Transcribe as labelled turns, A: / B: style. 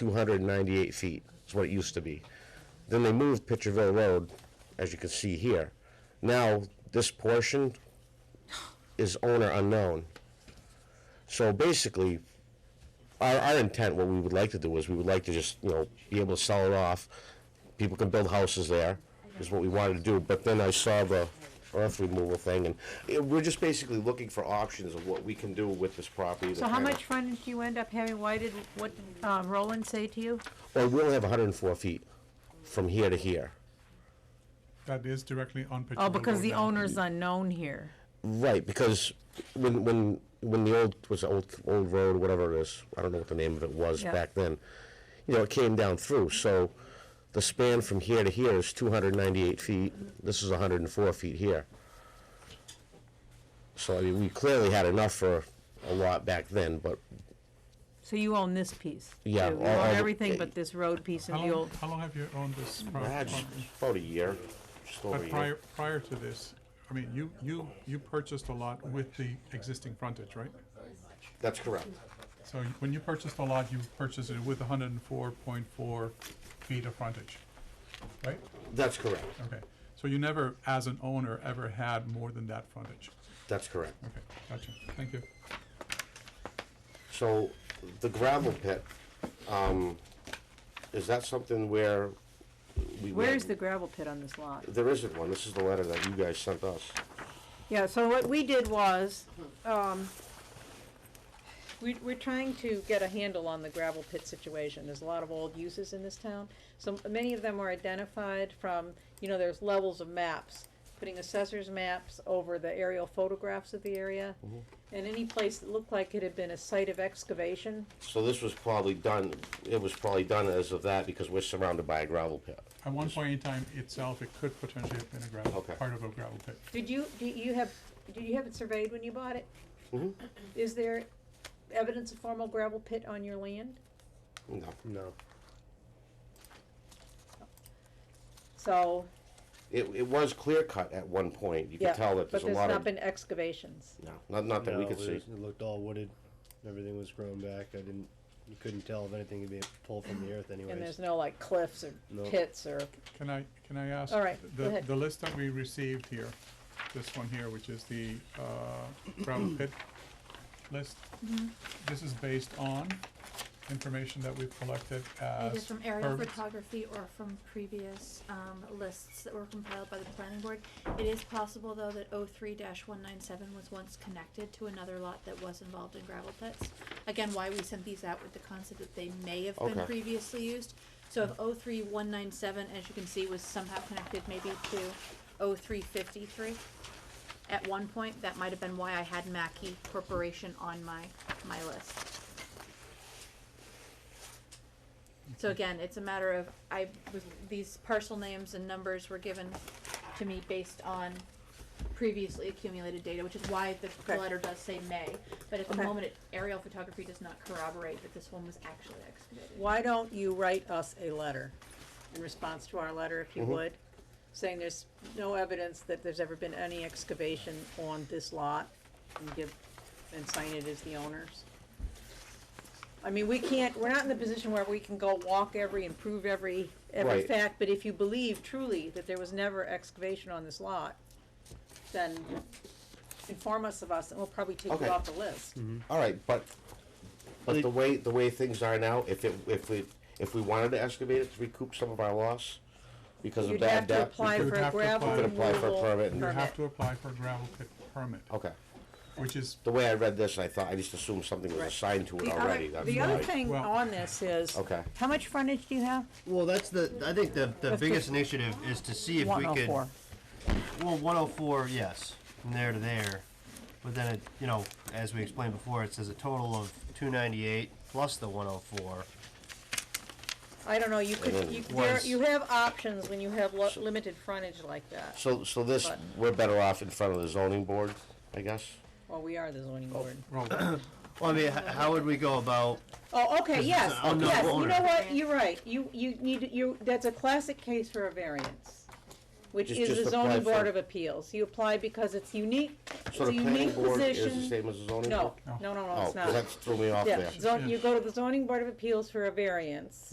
A: two hundred and ninety-eight feet, is what it used to be. Then they moved Pitcherville Road, as you can see here. Now, this portion is owner unknown. So basically, our, our intent, what we would like to do is, we would like to just, you know, be able to sell it off. People can build houses there, is what we wanted to do, but then I saw the earth removal thing, and it- we're just basically looking for options of what we can do with this property. to
B: So how
A: kinda-
B: much frontage do you end up having? Why did, what did um, Roland say to you?
A: Well, we only have hundred and four feet from here to here.
C: That is directly on Pitcherville.
B: Oh, because
C: Road
B: the
C: now.
B: owner's unknown here.
A: Right, because when, when, when the old, was the old, old road, whatever it is, I don't know what the name of it was
B: Yeah.
A: back then, you know, it came down through, so the span from here to here is two hundred ninety-eight feet, this is hundred and four feet here. So, I mean, we clearly had enough for a lot back then, but,
B: So you own this piece?
A: Yeah,
B: too. You
A: all- all
B: own
A: the-
B: everything but this road piece and
C: How
B: the
C: long,
B: old,
C: how long have you owned this pro-
A: Ah,
C: property?
A: just about a year, just over a
C: But
A: year.
C: prior, prior to this, I mean, you, you, you purchased a lot with the existing frontage, right?
A: That's correct.
C: So y- when you purchased the lot, you purchased it with hundred and four point four feet of frontage, right?
A: That's correct,
C: Okay, so you never, as an owner, ever had more than that frontage.
A: that's correct.
C: Okay, gotcha, thank you.
A: So, the gravel pit, um, is that something where we?
B: where is the gravel pit on this lot?
A: There isn't one, this is the letter that you guys sent us.
B: Yeah, so what we did was, um, we, we're trying to get a handle on the gravel pit situation. There's a lot of old uses in this town. So many of them are identified from, you know, there's levels of maps, putting assessors maps over the aerial photographs of the area. And any place that looked like it had been a site of excavation,
A: So this was probably done, it was probably done as of that because we're surrounded by a gravel pit.
C: At one point in time itself, it could potentially have been a gravel,
A: Okay.
C: part of a gravel pit.
B: Did you, do you have, did you have it surveyed when you bought it?
A: Mhm.
B: Is there evidence of formal gravel pit on your land?
A: No. No.
B: So,
A: It, it was clear cut at one point, you
B: yeah,
A: could tell that
B: but
A: there's a
B: there's
A: lot
B: not
A: of,
B: been excavations.
A: no, not, not that we
D: No,
A: could
D: it
A: see.
D: was- It looked all wooded. Everything was grown back. I didn't, you couldn't tell if anything could be pulled from the earth anyways.
B: And there's no like cliffs or
D: No.
B: pits or,
C: Can I, can I ask?
B: All right, go
C: the-
B: ahead.
C: The list that we received here, this one here, which is the uh, gravel pit list.
B: Mm-hmm.
C: This is based on information that we've collected as.
E: Either from aerial
C: permits.
E: photography or from previous, um, lists that were compiled by the planning board. It is possible, though, that oh three one nine seven was once connected to another lot that was involved in gravel pits. Again, why we sent these out with the concept that they may have been
A: Okay.
E: previously used. So if oh three one nine seven, as you can see, was somehow connected maybe to oh three fifty-three at one point, that might have been why I had Mackey Corporation on my, my list. So again, it's a matter of, I, was- these parcel names and numbers were given to me based on previously accumulated data, which is why the-
B: Okay.
E: the letter does say may. But at the
B: Okay.
E: moment, it- aerial photography does not corroborate that this one was actually excavated.
B: why don't you write us a letter in response to our letter, if you
A: Mm-hmm.
B: would, saying there's no evidence that there's ever been any excavation on this lot, and give, and sign it as the owners? I mean, we can't, we're not in the position where we can go walk every and prove every, every
A: Right.
B: fact, but if you believe truly that there was never excavation on this lot, then inform us of us, and we'll probably take
A: Okay.
B: you off the list.
C: Mm-hmm.
A: All right, but, but the way, the way things are now, if it, if we, if we wanted to excavate it to recoup some of our loss because of
B: You'd
A: bad
B: have to
A: debt. we
B: apply
A: could-
B: for
C: would
B: a
C: have to
B: gravel
C: apply-
A: Could apply for a
B: removal
A: permit and-
C: You
B: permit.
C: have to apply for a gravel pit permit,
A: Okay,
C: which is,
A: the way I read this, I thought, I just assumed something was
B: Right.
A: assigned to it
B: The
A: already,
B: other,
A: that's
B: the other
A: why.
B: thing
C: Well-
B: on this is,
A: Okay.
B: how much frontage do you have?
D: Well, that's the, I think the, the
B: Let's
D: biggest
B: just-
D: initiative is to see if we
B: One oh
D: could.
B: four.
D: Well, 104, yes, from there to there. But then, it, you know, as we explained before, it says a total of 298 plus the 104.
B: I don't know, you
A: oh
B: could, you, there,
D: Was-
B: you have options when you have lo- limited frontage like that.
A: So, so this,
B: But-
A: we're better off in front of the zoning board, I guess?
B: Well, we are the zoning
A: Oh.
B: board.
C: well,
D: Well, I mean, h- how would we go about?
B: Oh, okay, yes,
D: an unknown
B: yes, you know
D: owner.
B: what, you're right, you, you need, to- you, that's a classic case for a variance. which
A: Just-
B: is
A: just
B: the
A: apply
B: zoning board
A: for-
B: of appeals. You apply because it's unique, it's
A: So
B: a
A: the planning
B: unique
A: board is the
B: position.
A: same as the zoning board?
B: No,
C: No.
B: no, no, no,
A: Oh,
B: it's
A: 'cause
B: not.
A: that threw me off
B: Yeah,
A: there.
B: zon- you go to the zoning board of appeals for a variance.